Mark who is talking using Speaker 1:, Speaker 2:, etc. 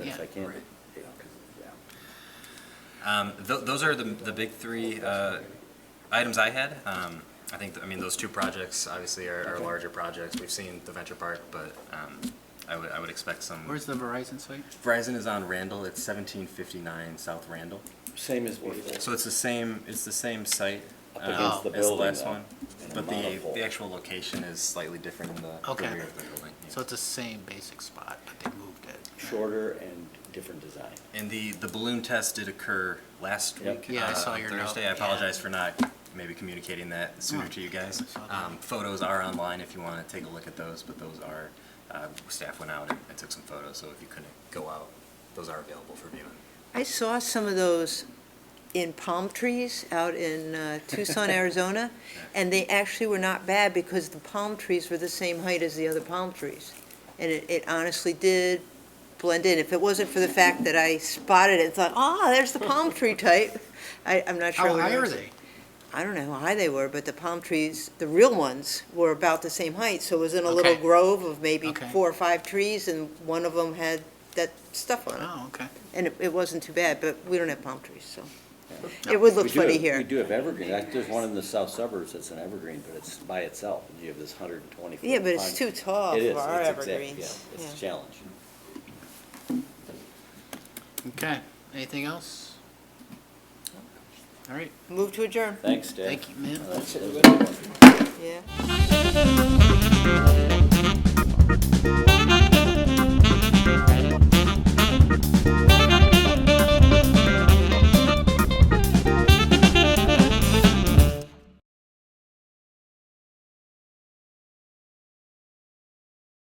Speaker 1: can't,
Speaker 2: Right.
Speaker 1: yeah, 'cause- yeah.
Speaker 2: Um, th- those are the, the big three uh, items I had. Um, I think, th- I mean, those two projects obviously are, are
Speaker 1: Okay.
Speaker 2: larger projects. We've seen the Venture Park, but um, I would I would expect some.
Speaker 3: Where's the Verizon site?
Speaker 2: Verizon is on Randall. It's 1759 South Randall.
Speaker 1: Same as before.
Speaker 2: So it's the same. It's the same site
Speaker 1: Up
Speaker 2: uh,
Speaker 1: against the
Speaker 2: as the
Speaker 1: building,
Speaker 2: last
Speaker 1: though,
Speaker 2: one,
Speaker 1: in a
Speaker 2: but the
Speaker 1: monopole.
Speaker 2: the actual location is slightly different in the
Speaker 3: Okay.
Speaker 2: rear of the building. yeah.
Speaker 3: So it's the same basic spot, but they moved it.
Speaker 1: Shorter and different design.
Speaker 2: And the, the balloon test did occur last
Speaker 1: Yep.
Speaker 2: week.
Speaker 3: Yeah, I
Speaker 2: uh,
Speaker 3: saw
Speaker 2: on
Speaker 3: your note,
Speaker 2: Thursday, I
Speaker 3: yeah.
Speaker 2: apologize for not maybe communicating that sooner
Speaker 3: No,
Speaker 2: to you guys.
Speaker 3: I saw that.
Speaker 2: Um, Photos are online if you want to take a look at those, but those are, uh, staff went out and and took some photos, so if you couldn't go out, those are available for viewing.
Speaker 4: I saw some of those in palm trees out in uh, Tucson, Arizona, and they actually were not bad because the palm trees were the same height as the other palm trees. And it, it honestly did blend in. If it wasn't for the fact that I spotted it and thought, ah, there's the palm tree type, I, I'm not sure.
Speaker 3: How
Speaker 4: what it
Speaker 3: high are
Speaker 4: was.
Speaker 3: they?
Speaker 4: I don't know how high they were, but the palm trees, the real ones, were about the same height. So it was in a little
Speaker 3: Okay.
Speaker 4: grove of maybe
Speaker 3: Okay.
Speaker 4: four or five trees, and one of them had that stuff on it.
Speaker 3: Oh, okay.
Speaker 4: And it, it wasn't too bad, but we don't have palm trees, so.
Speaker 3: No.
Speaker 4: It would
Speaker 1: We
Speaker 4: look
Speaker 1: do
Speaker 4: funny
Speaker 1: have- We
Speaker 4: here.
Speaker 1: do have evergreen, Like, there's one in the south suburbs that's an evergreen, but it's by itself, and you have this hundred and twenty.
Speaker 4: Yeah, but it's too tall
Speaker 1: It is,
Speaker 4: for our
Speaker 1: it's exact, yeah,
Speaker 4: evergreens.
Speaker 1: it's a
Speaker 4: Yeah.
Speaker 1: challenge.
Speaker 3: Okay. Anything else? All right.
Speaker 4: Move to adjourn,
Speaker 1: Thanks, Dave.
Speaker 3: Thank you, ma'am.
Speaker 1: That's- that's a good one.
Speaker 4: yeah.